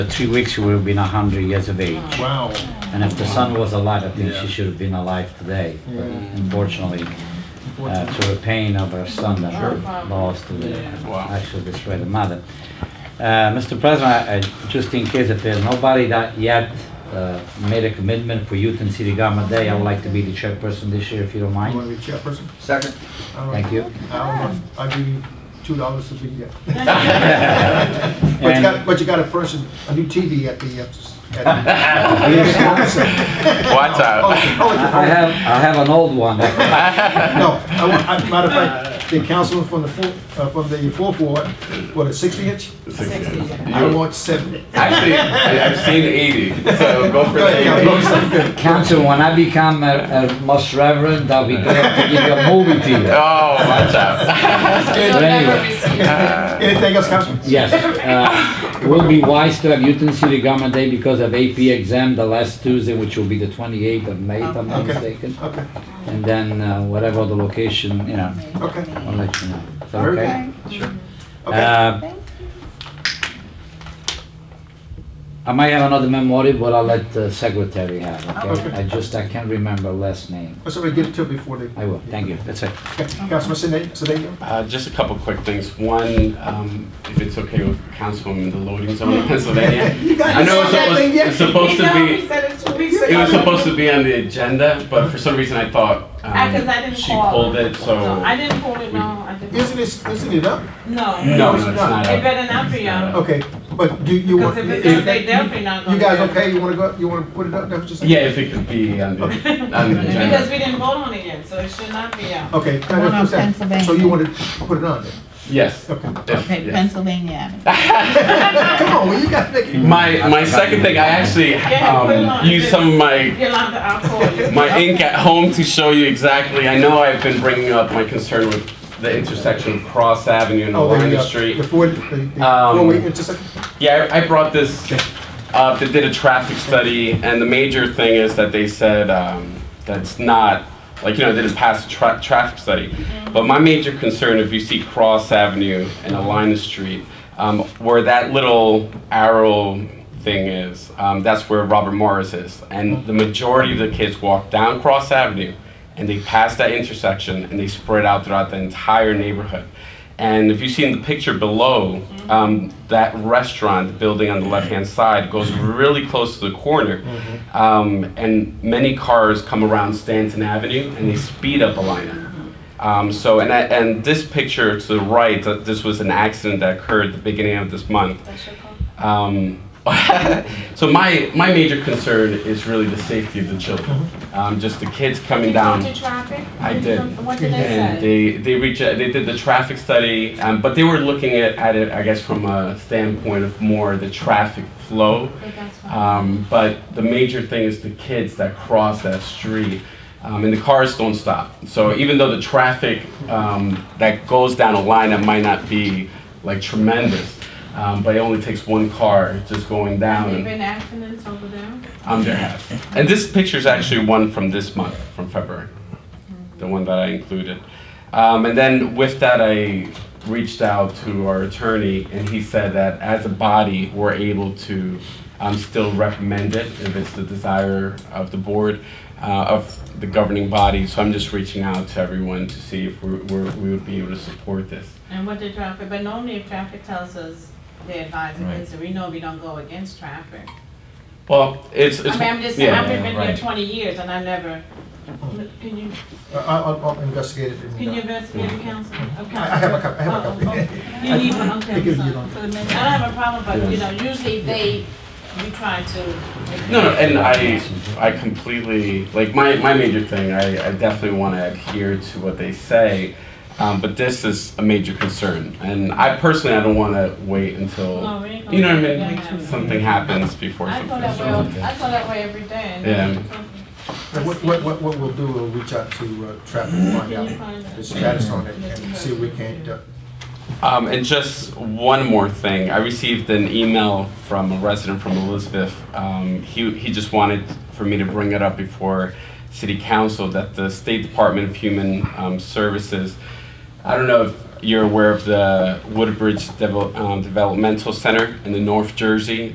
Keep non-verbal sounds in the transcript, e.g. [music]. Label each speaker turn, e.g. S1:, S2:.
S1: The three weeks, she would have been 100 years of age.
S2: Wow.
S1: And if the son was alive, I think
S2: Yeah.
S1: she should have been alive today. But
S2: Mm.
S1: unfortunately, uh,
S2: Unfortunately.
S1: to the pain of her son that
S2: Sure.
S1: was lost to the
S2: Wow.
S1: actual destroyed the mother. Uh, Mr. President, I- I- just in case if there's nobody that yet uh, made a commitment for Youth and City Government Day, I would like to be the chairperson this year, if you don't
S2: You want
S1: mind.
S2: to be chairperson?
S3: Second.
S2: All right.
S1: Thank you.
S2: I'll, I'll give you two dollars to be there. But you
S1: And-
S2: got, [laughs] but you got a person, a new TV at the, uh, s-
S1: [laughs]
S2: at
S4: Watch
S2: the.
S4: out.
S2: Oh, oh, it's your
S1: I I have, I have an old one.
S2: phone. No, I want, I, matter of fact, the councilman from the fourth, uh, from the fourth ward, what, a sixty inch? I want seventy.
S4: Actually, I- I've seen 80, so go for
S2: Go
S4: the
S2: ahead, Councilman.
S4: 80.
S1: Council, when I become a a most reverend, I'll be glad to give you a movie theater.
S4: Oh, watch
S5: [laughs]
S4: out.
S1: But anyway.
S4: Uh,
S2: Anything else, Councilman?
S1: Yes, uh, will be wise to have Newton City Government Day because of AP exam the last Tuesday, which will be the 28th of May, if I'm not
S2: Okay.
S1: mistaken.
S2: Okay,
S1: And then uh, whatever the location, you know,
S2: okay,
S1: I'll let you know. Is that
S2: Very
S1: okay?
S2: okay.
S1: Uh, I might have another memorial, but I'll let the secretary have, okay?
S2: Okay.
S1: I just, I can't remember last name.
S2: Let's already get it to it before they.
S1: I will, thank you, that's it.
S2: Okay, Councilman Sedan, Sedan?
S4: Uh, Just a couple quick things. One, um, if it's okay with Councilwoman, the loading zone in Pennsylvania.
S2: You got-
S4: I know
S2: you
S4: it's
S2: said
S4: supposed,
S2: nothing yet.
S4: it's supposed to be, it
S5: It
S4: was supposed to be on the agenda, but for some reason I thought um,
S5: Because I didn't
S4: she
S5: call.
S4: pulled it,
S5: No, I
S4: so.
S5: didn't pull it, no, I didn't.
S2: Isn't it, isn't it up?
S5: No.
S4: No, no, it's not.
S5: It better not be on.
S2: Okay, but do you want?
S5: Because if it's up, they definitely not
S2: You
S5: gonna.
S2: guys
S5: do it.
S2: okay, you wanna go, you wanna put it up, that was just.
S4: Yeah, if it could be on the, on the
S5: [laughs] Because
S4: agenda.
S5: we didn't vote on it yet, so it should not be out.
S4: Oh.
S2: Okay. now
S6: One on
S2: that's what I'm saying. So
S6: Pennsylvania.
S2: you wanna put it on there?
S4: Yes.
S2: Okay.
S4: if-
S6: Okay,
S4: yes.
S6: Pennsylvania Avenue.
S2: Come on, well, you gotta make it.
S4: My, my second thing, I actually
S5: put it on.
S4: um, used some of my
S5: [laughs] Yolanda, I'll call
S4: [laughs]
S5: you.
S4: my ink at home to show you exactly. I know I've been bringing up my concern with the intersection of Cross Avenue and
S2: Oh, there you
S4: Lorna
S2: go. The
S4: Street.
S2: four, the, the
S4: Um,
S2: four-way intersection,
S4: Yeah, I I brought this up. They did a traffic study, and the major thing is that they said um, that's not like you know they didn't pass a tra- traffic study. But my major concern, if you see Cross Avenue and Alina Street, um, where that little arrow thing is, um, that's where Robert Morris is, and the majority of the kids walk down Cross Avenue, and they pass that intersection, and they spread out throughout the entire neighborhood. And if you see in the picture below, um, that restaurant, the building on the left-hand side, goes really close to the corner. Um, and many cars come around Stanton Avenue and they speed up Alina. Um, so, and, I, and this picture to the right, th- this was an accident that occurred at the beginning of this month. Um, [laughs] so my, my major concern is really the safety of the children. Um, just the kids coming down.
S5: Did you talk to traffic?
S4: I did.
S5: What did they
S4: And
S5: say?
S4: they, they reach, they did the traffic study, um, but they were looking at, at it, I guess, from a standpoint of more the traffic flow. Um, but the major thing is the kids that cross that street, um, and the cars don't stop. So even though the traffic um, that goes down a line that might not be like tremendous, um, but it only takes one car just going
S5: Have there
S4: down.
S5: been accidents over there?
S4: I'm there And this picture is actually one from this month, from February, the one that I included. Um, and then with that, I reached out to our attorney, and he said that as a body, we're able to um, still recommend it if it's the desire of the board, uh, of the governing body. So I'm just reaching out to everyone to see if we're, we're, we would be able to support this.
S5: And what did traffic, but normally if traffic tells us they advise against it, we know we don't go against traffic.
S4: Well, it's, it's
S5: I mean, I'm just saying,
S4: yeah,
S5: I've been here
S4: right.
S5: twenty years and I never, can you,
S2: I, Uh, I'll, I'll investigate it. and,
S5: can you
S2: uh,
S5: investigate the council?
S2: I I have a copy, I have a
S5: Oh, okay.
S2: copy.
S5: You need one,
S2: [laughs]
S5: okay,
S2: I give you
S5: so-
S2: one.
S5: so it may- I don't have a problem, but you know, usually they, we try to.
S4: No, no, and I, I completely, like, my, my major thing, I, I definitely want to adhere to what they say, um, but this is a major concern. And I personally, I don't want to wait until,
S5: No, we ain't gonna
S4: you know
S5: wait,
S4: what I
S5: Oh, yeah.
S4: mean? Something happens before
S5: I go
S4: something.
S5: that way, all- I go that way every day.
S4: Yeah.
S2: And uh, What, what, what, what we'll do, we'll reach out to, uh, traffic, and find
S5: Can you
S2: out
S5: find
S2: the
S5: that?
S2: status on it and see if we can't, uh,
S4: Um, and just one more thing, I received an email from a resident from Elizabeth. Um, he, he just wanted for me to bring it up before City Council that the State Department of Human um, Services, I don't know if you're aware of the Woodbridge Devel- um, Developmental Center in the North Jersey.